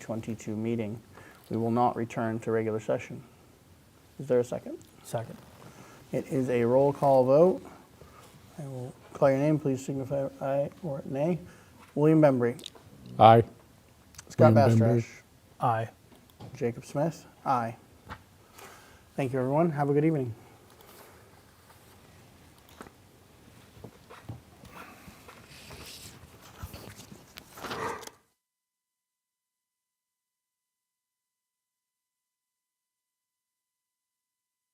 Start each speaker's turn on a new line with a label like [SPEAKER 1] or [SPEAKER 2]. [SPEAKER 1] 22 meeting. We will not return to regular session. Is there a second?
[SPEAKER 2] Second.
[SPEAKER 1] It is a roll call vote. I will call your name, please signify aye or nay. William Bembry,
[SPEAKER 3] Aye.
[SPEAKER 1] Scott
[SPEAKER 3] William Bembry.
[SPEAKER 1] Bastrash,
[SPEAKER 2] Aye.
[SPEAKER 1] Jacob Smith, aye. Thank you, everyone. Have a good evening.